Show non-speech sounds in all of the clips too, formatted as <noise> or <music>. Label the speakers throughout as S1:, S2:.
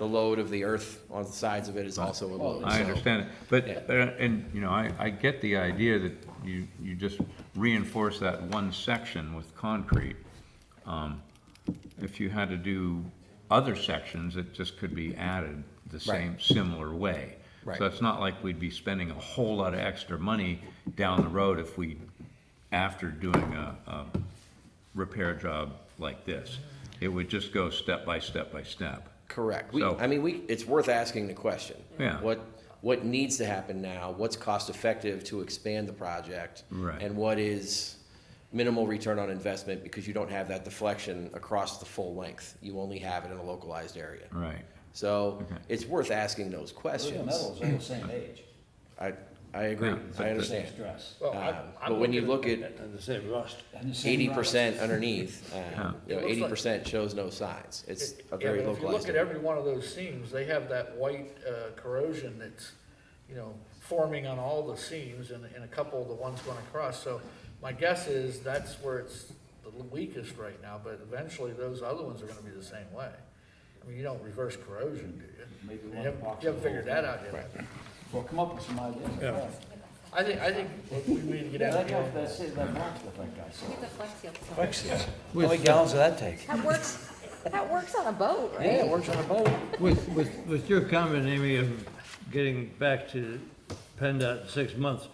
S1: the load of the earth on the sides of it is also a load.
S2: I
S1: so-
S2: understand it, but,
S1: Yeah.
S2: uh, and, you know, I, I get the idea that you, you just reinforce that one section with concrete. Um, If you had to do other sections, it just could be added the same, similar way.
S1: Right.
S2: So it's not like we'd be spending a whole lot of extra money down the road if we, after doing a, a repair job like this. It would just go step by step by step.
S1: Correct. We,
S2: So-
S1: I mean, we, it's worth asking the question.
S2: Yeah.
S1: What, what needs to happen now? What's cost effective to expand the project?
S2: Right.
S1: And what is minimal return on investment because you don't have that deflection across the full length? You only have it in a localized area.
S2: Right.
S1: So it's worth asking those
S3: Aluminum
S1: questions.
S3: metal is all the same age,
S1: I, I agree.
S2: Yeah.
S1: I
S3: same
S1: understand.
S3: stress.
S4: Well,
S1: Um,
S4: I'm- I'm
S1: but when you
S4: looking
S1: look
S4: And the same rust.
S3: And the same
S1: Eighty percent
S3: rock.
S1: underneath, um, you know,
S4: It looks
S1: eighty
S4: like-
S1: percent shows no signs. It's
S4: Yeah,
S1: a
S4: but
S1: very
S4: If you look
S1: localized
S4: at
S1: area.
S4: every one of those seams, they have that white uh, corrosion that's, you know, forming on all the seams and, and a couple of the ones going across. So my guess is that's where it's the weakest right now, but eventually those other ones are gonna be the same way. I mean, you don't reverse corrosion, do you?
S3: Maybe
S4: You
S3: one
S4: haven't,
S3: box
S4: you haven't
S3: of
S4: figured that out yet.
S3: Well, come up with some ideas.
S4: Yeah. I think, I think we need to get
S3: Yeah,
S4: out
S3: that guy,
S4: there.
S3: that's, that marks look like I saw.
S5: Get the flex seal.
S6: How many gallons does that take?
S5: That works, that works on a boat, right?
S3: Yeah, it works on a boat.
S7: With, with, with your comment, Amy, of getting back to PennDOT in six months,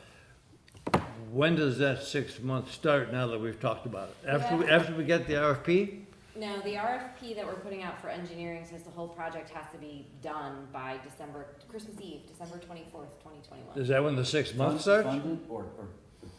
S7: when does that six months start now that we've talked about it? After, we-
S5: Yeah.
S7: after we get the RFP?
S5: No, the RFP that we're putting out for engineering says the whole project has to be done by December, Christmas Eve, December twenty-fourth, twenty twenty-one.
S7: Is that when the six months starts?
S3: Funded or, or,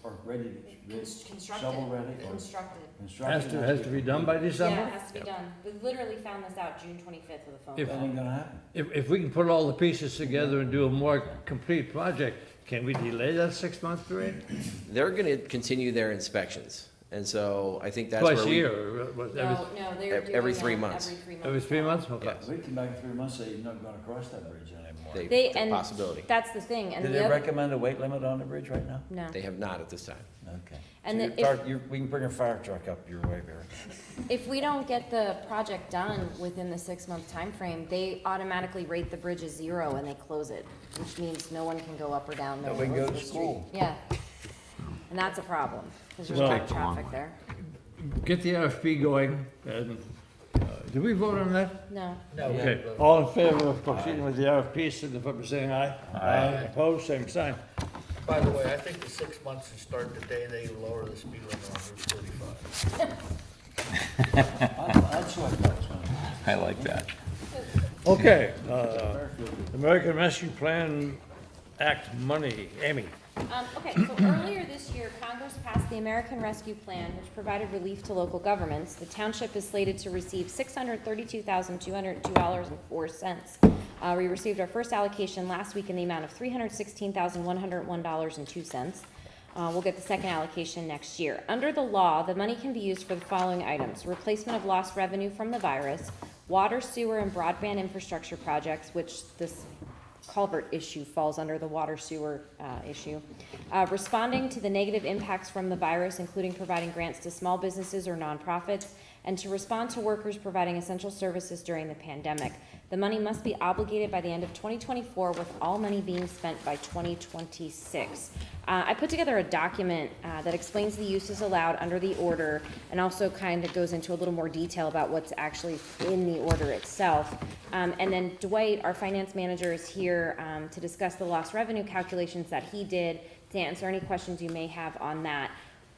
S3: or ready, to-
S5: Constructed,
S3: shovel ready or
S5: constructed.
S3: construction.
S7: Has to, has to be done by
S5: Yeah, it
S7: December?
S5: has to be done. We literally found this out June twenty-fifth with a phone
S7: If-
S3: That
S5: call.
S3: ain't gonna happen.
S7: If, if we can put all the pieces together and do a more complete project, can we delay that six-month period?
S1: They're gonna continue their inspections. And so I think that's where we.
S7: Twice a year, or what, every,
S5: No, no, they're
S1: ev-
S5: doing
S1: every three
S5: that
S1: months.
S5: Every three months.
S7: every three months? Okay.
S1: Yes.
S3: We come back in three months, say you're not gonna cross that bridge anymore.
S1: They,
S5: They,
S1: the
S5: and
S1: possibility.
S5: that's the thing, and
S6: Did
S5: the
S6: they
S5: other,
S6: recommend a weight limit on the bridge right now?
S5: no.
S1: They have not at this time.
S6: Okay.
S5: And
S6: So
S5: the-
S6: your
S5: if-
S6: fire- your- We can bring a fire truck up your way, Barry.
S5: If we don't get the project done within the six-month time frame, they automatically rate the bridge as zero and they close it, which means no one can go up or down. No
S6: Nobody
S5: one
S6: can go to
S5: goes the street.
S6: school.
S5: Yeah, and that's a problem, because there's a
S7: Well-
S5: lot of traffic there.
S7: Get the RFP going, and, uh, did we vote on that?
S5: No,
S4: No, we
S7: Okay,
S4: haven't voted.
S7: all in favor of proceeding with the RFP, signify by saying aye. Aye. Opposed, same sign.
S4: By the way, I think the six months should start the day they lower the speed limit on Route forty-five.
S3: I- That's what I thought was gonna happen.
S2: I like that.
S7: Okay, uh, American Rescue Plan Act money, Amy.
S5: Um, okay, so earlier this year, Congress passed the American Rescue Plan, which provided relief to local governments. The township is slated to receive six hundred thirty-two thousand, two hundred two dollars and four cents. Uh, we received our first allocation last week in the amount of three hundred sixteen thousand, one hundred one dollars and two cents. Uh, we'll get the second allocation next year. Under the law, the money can be used for the following items: replacement of lost revenue from the virus, water, sewer, and broadband infrastructure projects, which this culvert issue falls under the water sewer uh, issue. Uh, Responding to the negative impacts from the virus, including providing grants to small businesses or nonprofits, and to respond to workers providing essential services during the pandemic. The money must be obligated by the end of 2024, with all money being spent by 2026. Uh, I put together a document uh, that explains the uses allowed under the order, and also kind of goes into a little more detail about what's actually in the order itself. Um, and then Dwight, our finance manager, is here, um, to discuss the lost revenue calculations that he did, to answer any questions you may have on that.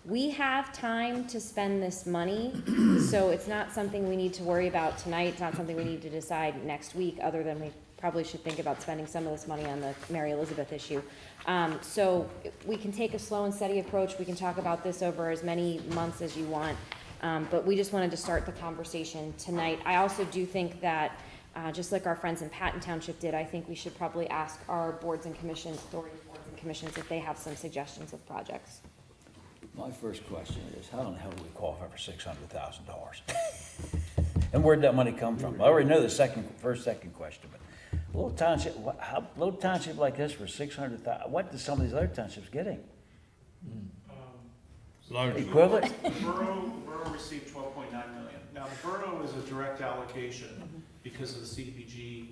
S5: We have time to spend this money, so it's not something we need to worry about tonight, it's not something we need to decide next week, other than we probably should think about spending some of this money on the Mary Elizabeth issue. Um, so we can take a slow and steady approach, we can talk about this over as many months as you want. Um, but we just wanted to start the conversation tonight. I also do think that, uh, just like our friends in Patton Township did, I think we should probably ask our boards and commissions, authority boards and commissions, if they have some suggestions of projects.
S3: My first question is, how in the hell do we qualify for six hundred thousand dollars? <laughs> And where'd that money come from? I already know the second, first, second question, but little township, wha- how, little township like this for six hundred thou, what do some of these other townships getting? Equivalent?
S8: The borough, the borough received twelve point nine million. Now, the borough is a direct allocation because of the CDBG